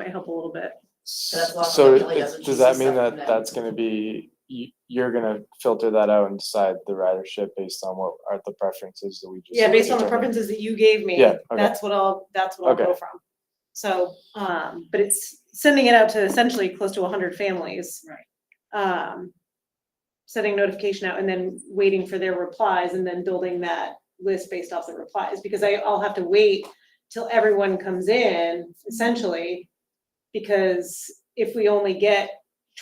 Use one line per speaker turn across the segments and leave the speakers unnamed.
might help a little bit.
That's why
So
Kelly
it's-
doesn't
does
choose
that
the
mean
stuff
that
that-
that's gonna be, you, you're gonna filter that out and decide the ridership based on what are the preferences that we just.
Yeah, based on the
determined?
preferences that you gave me,
Yeah, okay.
that's what I'll, that's what I'll go from. So, um, but it's sending it out to essentially close to hundred families.
Right.
Um, sending notification out and then waiting for their replies and then building that list based off the replies, because I, I'll have to wait till everyone comes in, essentially. Because if we only get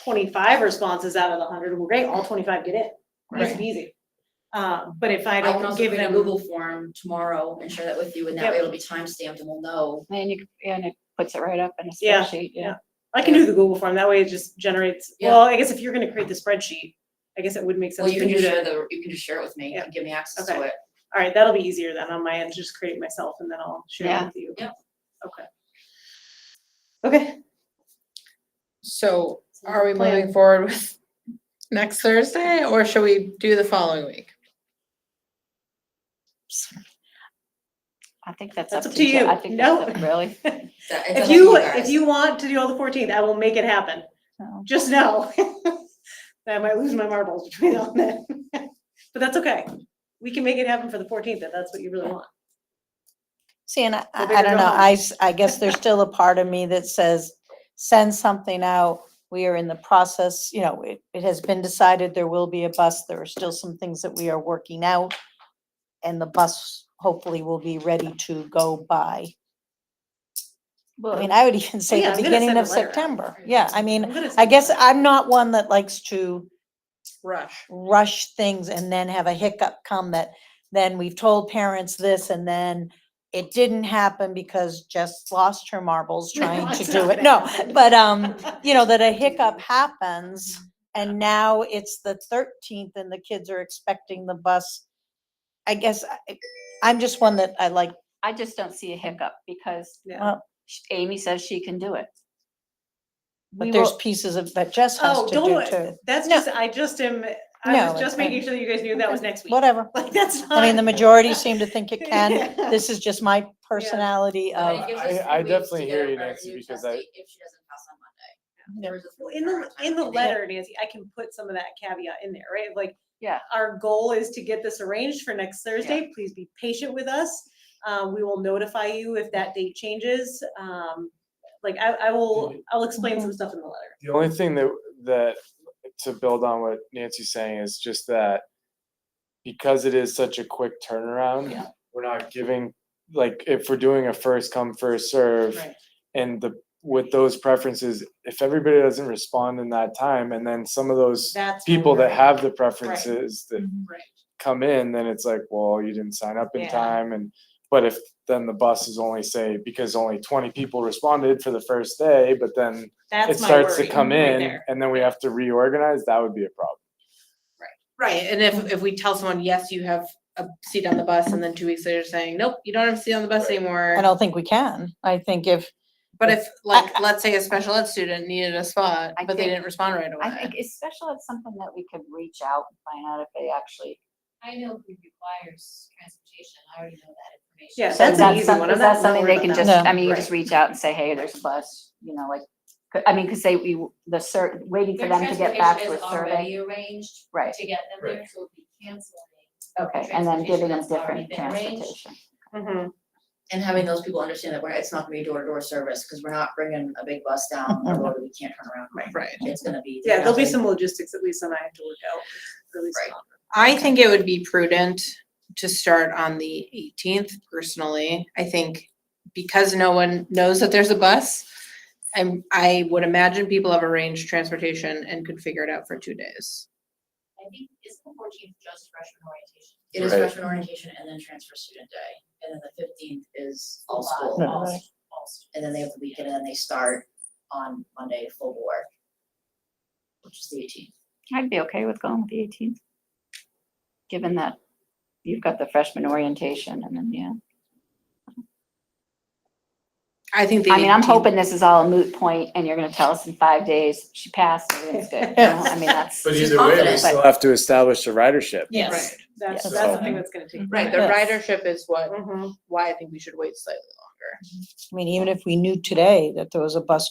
twenty-five responses out of the hundred, well, great, all twenty-five get in,
Right.
It's easy. Um, but if I
I can
don't
also
give
create a
them.
Google form tomorrow and share that with you, and that
Yep.
way it'll be timestamped and we'll know.
And you, and it puts it right up in a
Yeah,
spreadsheet,
yeah.
yeah.
I can do the Google form, that way it just generates,
Yeah.
well, I guess if you're gonna create the spreadsheet, I guess it would make
Well,
sense
you
for
can
you
just share
to,
the, you can just share it with me
Yeah.
and give me access to
Okay.
it.
alright, that'll be easier then on my end, just create it myself and then I'll share it
Yeah.
with you.
Yep.
Okay. Okay,
So are we
plan.
moving forward with next Thursday or should we do the following week?
I think that's
That's
up to you. I think that's
No.
up- Really?
That- it's up
if
to
you, if
guys.
you want to do all the fourteenth, I will make it happen,
No.
just know. that I might lose my marbles between now and then, but that's okay, we can make it happen for the fourteenth, if that's what you really want.
See, and I,
Well,
I
they
I
could
don't
go
know,
home.
I, s- I guess there's still a part of me that says, send something out. We are in the process, you know, it, it has been decided there will be a bus. There are still some things that we are working out. And the bus hopefully will be ready to go by. I mean,
Well,
I would even say
Oh, yeah,
the
I'm gonna
beginning
send a
of
letter out.
September. Yeah, I mean,
I'm gonna
I
send
guess
it.
I'm not one that likes to
Rush.
rush things and then have a hiccup come that then we've told parents this and then it didn't happen because Jess lost her marbles
No,
trying to
it's
do
not
it.
gonna
No,
happen.
but um, you know, that a hiccup happens and now it's the thirteenth and the kids are expecting the bus. I guess I, I'm just one that I like,
I just don't see a hiccup because
Yeah.
sh- Amy says she can do it. We
but there's
will-
pieces of, that Jess has
Oh,
to
don't,
do
worry.
too.
that's
No.
just, I just am, I was
No,
just
it's
making
fine.
sure that you guys knew that was next week,
Whatever.
like, that's not.
I mean, the majority seem to think it can.
Yeah.
This is just my
uh,
personality
uh,
But it
of,
gives
I-
us three
I
weeks to
definitely
get
hear
a-
you,
a
Nancy,
new
because
test
I-
date If she doesn't pass on Monday.
Yeah.
There's a
Well, in the,
three-hour
in the
time
letter, Nancy, I can put some of that caveat in there, right? Like.
Yeah.
Our goal is to get this arranged for next Thursday. Please be patient with us. Uh, we will notify you if that date changes. Um, like I, I will, I'll explain
Mm-hmm.
some stuff in the letter.
The only thing that, that, to build on what Nancy's saying is just that because it is such a quick
Yeah.
turnaround, we're not giving, like, if we're doing a first come, first serve,
Right.
and the, with those preferences, if everybody doesn't respond in that time, and then some of those
That's. my
people that
worry.
have the preferences that
Mhm.
Right.
come in, then it's like, well, you didn't sign up in
Yeah.
time and but if then the bus is only say because only twenty people responded for the first day, but then
That's
it
my
starts to
worry
come
right
in
there.
and then we have to reorganize, that would be a problem.
Right, and if, if we tell someone, yes, you have a seat on the bus, and then two weeks later saying, nope, you don't have a seat on the bus
Right.
I
anymore.
don't think we can. I think if
But if, like, let's say a special ed student needed a spot,
I
but they
think-
didn't respond right
I
away.
think it's special, it's something that we could reach out and find out if they actually.
I know who requires transportation, I already know that information.
Yeah,
So
that's
is
an
that
easy
some-
one. I'm
Is
not
that something
worried
they can
about
just,
that.
I mean, you just
Right.
reach out and say, hey, there's a bus, you know, like, 'cause- I mean, because they, we, the cert, waiting for
Their
them to get
transportation
back to a
is
survey.
Already arranged
Right,
to get them there,
Right.
so we canceling.
okay, and then giving them
transportation that's already
different
been arranged.
transportation.
Mm-hmm.
Mhm.
And having those people understand that we're, it's not gonna be door-to-door service, because we're not bringing a big bus down a road that we can't turn around.
Right.
It's gonna be.
Yeah, there'll be
definitely-
some logistics at least that I have to work out. at least
Right.
on.
I think it would be prudent to start on the eighteenth personally. I think because no one knows that there's a bus. And I would imagine people have arranged transportation and could figure it out for two days.
I think it's the fourteenth just freshman orientation.
It is
Right.
freshman orientation and then transfer student day, and then the fifteenth is all
All-
school.
all-
Right.
all students.
And then they have the weekend, and then they start on Monday full board. Which is the eighteenth.
I'd be okay with going with the eighteenth. Given that you've got the freshman orientation and then, yeah.
I think the
I mean, I'm
18th
hoping this is all a moot point and you're gonna tell us in five days, she passed, everything's good. you know? I mean, that's,
But either way, we
still
have to establish the ridership.
Yes, that's,
Yes.
that's the thing that's gonna take.
Right, the
Yes.
ridership is what,
Mhm.
why I think we should wait slightly longer.
I mean, even if we knew today that there was a bus